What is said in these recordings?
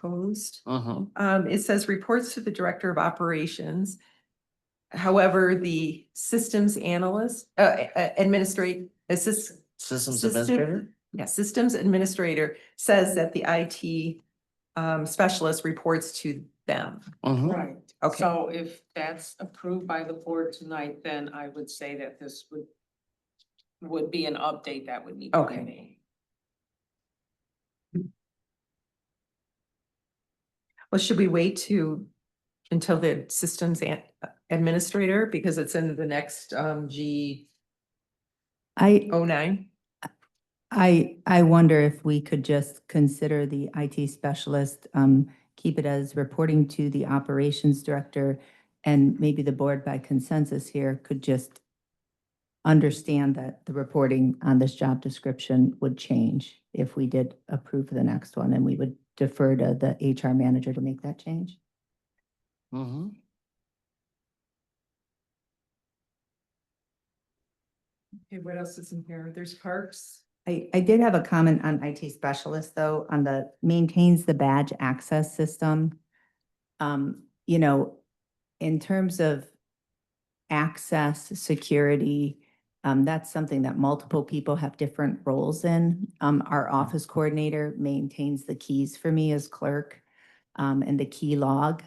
proposed. Uh-huh. Um, it says reports to the director of operations. However, the systems analyst, uh, uh, administrate, assist, Systems System- administrator? yeah, systems administrator says that the IT um, specialist reports to them. Uh-huh. Right. Okay. So if that's approved by the board tonight, then I would say that this would would be an update that would need to be Okay. made. Well, should we wait to, until the systems an- uh, administrator, because it's in the next um G I, O nine? I, I wonder if we could just consider the IT specialist, um, keep it as reporting to the operations director. And maybe the board by consensus here could just understand that the reporting on this job description would change if we did approve the next one and we would defer to the HR manager to make that change. Uh-huh. Okay, what else is in here? There's parks. I, I did have a comment on IT specialist though, on the maintains the badge access system. Um, you know, in terms of access, security, um, that's something that multiple people have different roles in. Um, our office coordinator maintains the keys for me as clerk. um, and the key log,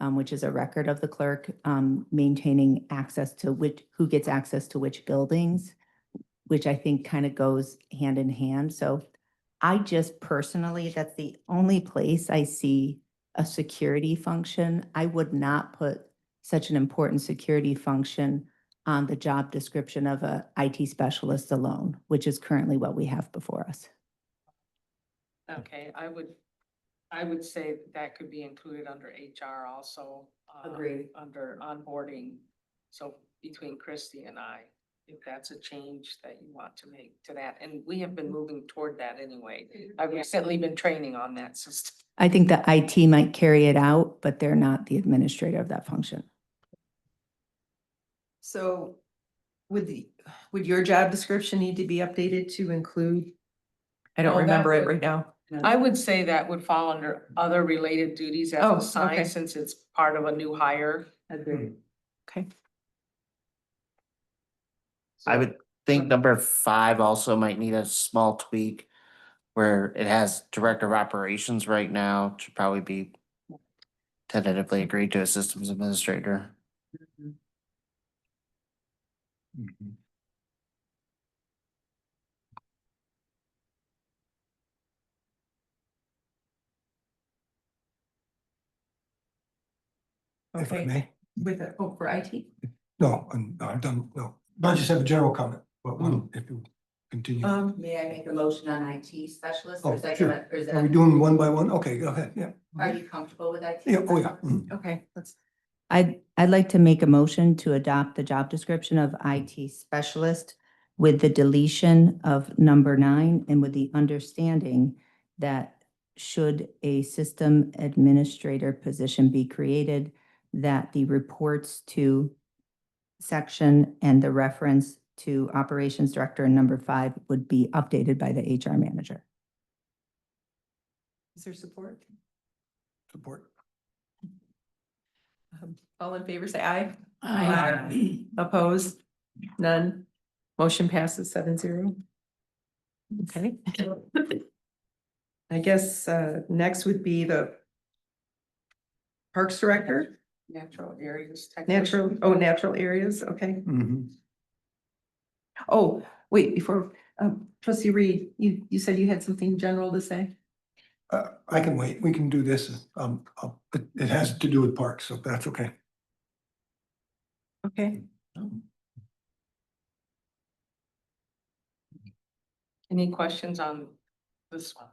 um, which is a record of the clerk, um, maintaining access to which, who gets access to which buildings which I think kind of goes hand in hand. So I just personally, that's the only place I see a security function. I would not put such an important security function on the job description of a IT specialist alone, which is currently what we have before us. Okay, I would, I would say that could be included under HR also. um, Agreed. Under onboarding, so between Christy and I, if that's a change that you want to make to that, and we have been moving toward that anyway. I've recently been training on that system. I think the IT might carry it out, but they're not the administrator of that function. So would the, would your job description need to be updated to include? I don't No, that's remember it a- right now. I would say that would fall under other related duties as Oh, okay. assigned, since it's part of a new hire. Agreed. Okay. I would think Mhm. number five also might need a small tweak where it has director of operations right now should probably be tentatively agreed to a systems administrator. if I Okay. may. With a, oh, for IT? No, I'm, I'm done, no. I just have a general comment, but one, if you continue. Are Um, May I make a motion on IT specialist? or is Oh, that sure. gonna- we doing one by one? Okay, go ahead, yeah. you comfortable with IT? Yeah, oh, yeah. mhm. okay, let's, I'd, I'd like to make a motion to adopt the job description of IT specialist with the deletion of number nine and with the understanding that should a system administrator position be created, that the reports to section and the reference to operations director in number five would be updated by the HR manager. is there support? Support. Um, All in favor, say aye. Aye. Opposed? None? Motion passes seven zero. Okay. I guess uh next would be the Parks Director, Natural areas. natural, oh, natural areas, okay. Mhm. Oh, wait, before, um, trustee Reed, you you said you had something general to say? Uh, I can wait, we can do this, um, I'll- it, it has to do with parks, so that's okay. Okay, Any questions on this one?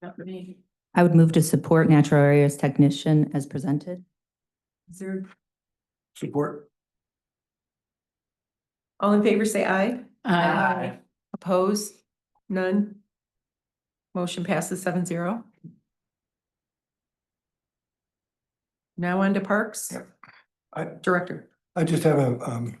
not for me. I would move to support natural areas technician as presented. Is there, Support. all in favor, say aye. Opposed? None? Motion passes seven zero. Now on to Parks. Yep. I- Director. I just have a, um,